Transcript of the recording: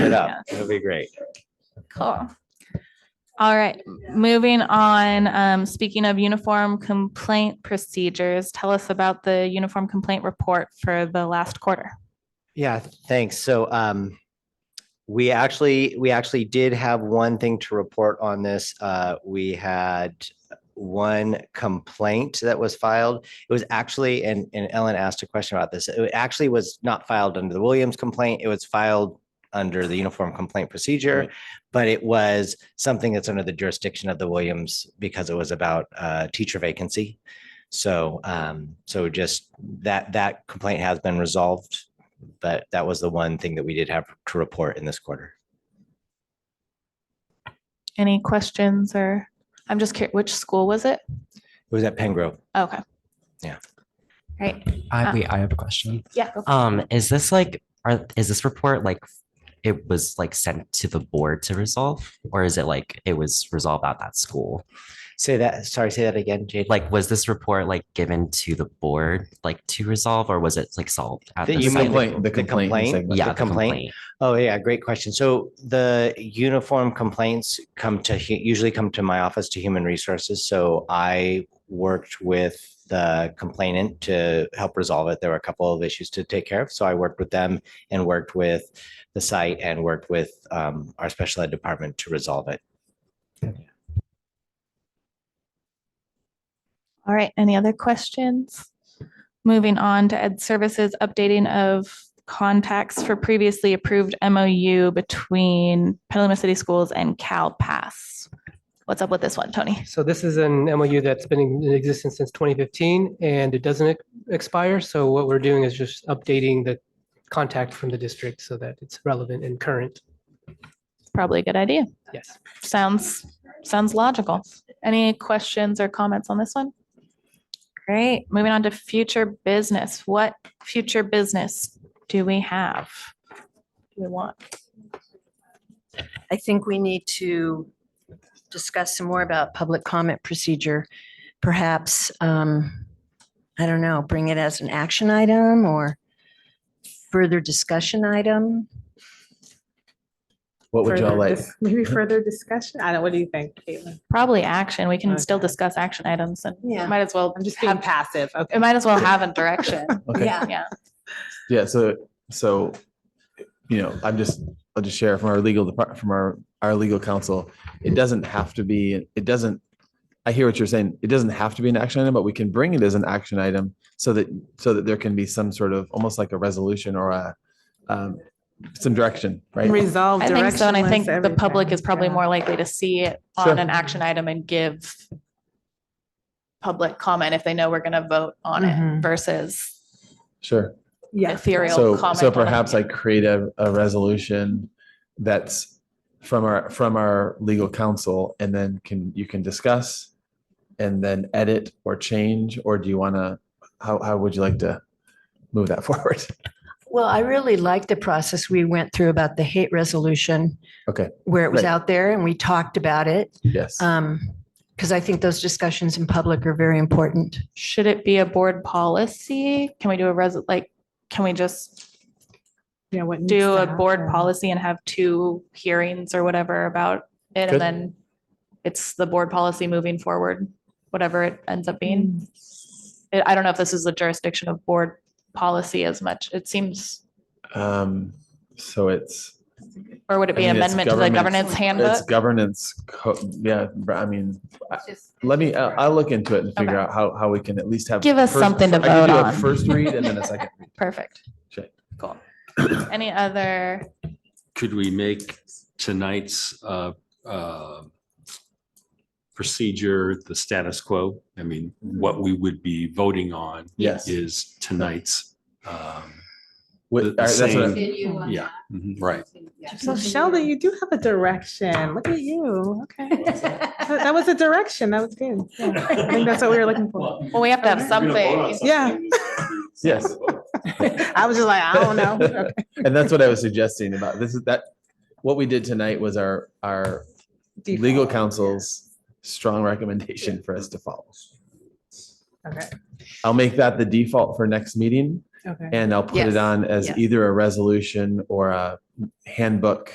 it up. It'll be great. Cool. All right, moving on. Um, speaking of uniform complaint procedures, tell us about the uniform complaint report for the last quarter. Yeah, th- thanks. So um, we actually, we actually did have one thing to report on this. Uh, we had one complaint that was filed. It was actually, and, and Ellen asked a question about this. It actually was not filed under the Williams complaint. It was filed under the Uniform Complaint Procedure, Right. but it was something that's under the jurisdiction of the Williams because it was about uh, teacher vacancy. So, um, so just that, that complaint has been resolved but that was the one thing that we did have to report in this quarter. Any questions or, I'm just curious, which school was it? It was at Pengrove. Okay. Yeah. Right, I Uh, wait, I have a question. yeah. go for it. Um, is this like are is this report like it was like sent to the board to resolve? Or is it like it was resolved at that school? Say that, sorry, say that again, Jade. Like was this report like given to the board like to resolve or was it like solved at The- the you mean site? like- Complaint, the the complaint. complaint? segment. yeah, the the complaint? complaint. Oh, yeah, great question. So the uniform complaints come to, hu- usually come to my office to Human Resources. So I worked with the complainant to help resolve it. There were a couple of issues to take care of. So I worked with them and worked with the site and worked with um, our special ed department to resolve it. All right, any other questions? Moving on to Ed Services, updating of contacts for previously approved MOU between Petaluma City Schools and Cal Pass. What's up with this one, Tony? So this is an MOU that's been in existence since 2015 and it doesn't ex- expire. So what we're doing is just updating the contact from the district so that it's relevant and current. Probably a good idea. Yes. Sounds, sounds logical. Any questions or comments on this one? Great. Moving on to future business. What future business do we have? Do we want? I think we need to discuss some more about public comment procedure. Perhaps, um, I don't know, bring it as an action item or further discussion item. What would y'all further like? dis- Maybe further discussion? I don't, what do you think, Caitlin? Probably action. We can still Okay. discuss action items and Yeah. might as well I'm just being have, passive. it Okay. might as well have a direction. Okay. Yeah. Yeah, so, so, you know, I'm just, I'll just share from our legal department, from our, our legal counsel. It doesn't have to be, it doesn't, I hear what you're saying. It doesn't have to be an action item, but we can bring it as an action item so that, so that there can be some sort of, almost like a resolution or a, um, some direction, right? Resolve. I think so. And I directionless think the public everything. is probably Yeah. more likely to see it Sure. on an action item and give public comment if they know we're going to vote on it Mhm. versus Sure. Yeah. ethereal So, comment. so on it. perhaps I create a, a resolution that's from our, from our legal counsel and then can, you can discuss and then edit or change, or do you want to, how, how would you like to move that forward? Well, I really liked the process we went through about the hate resolution. Okay. Where it was Right. out there and we talked about it. Yes. Uh, Um, because I think those discussions in public are very important. Should it be a board policy? Can we do a res, like, can we just Yeah, what needs do to a board happen. policy and have two hearings or whatever about it? Good. And then it's the board policy moving forward, whatever it ends up being. I I don't know if this is the jurisdiction of board policy as much. It seems, Um, so it's, or would it I be an mean, it's amendment to the government- governance it's handbook? governance, co- yeah, but I mean, I- let me, I- I'll look into it and figure Okay. out how, how we can at least have. Give us first- something to I can vote do a on. First read and then a second. read. Perfect. Sure. Cool. Any other, could we make tonight's uh, uh, procedure the status quo? I mean, what we would be voting on Yes. is tonight's. um, With- The- all the right, that's what I- Yeah, mhm, right. So Sheldon, you do have a direction. Look at you. Okay. That that was a direction. That was good. Yeah. I think that's what we were looking for. well, we have to have something. Yeah. Yes. I was just like, I don't know. Okay. And that's what I was suggesting about this is that what we did tonight was our, our legal Default. counsel's strong recommendation for us to follow. Okay. I'll make that the default for next meeting Okay. and I'll put it Yes. on as Yes. either a resolution or a handbook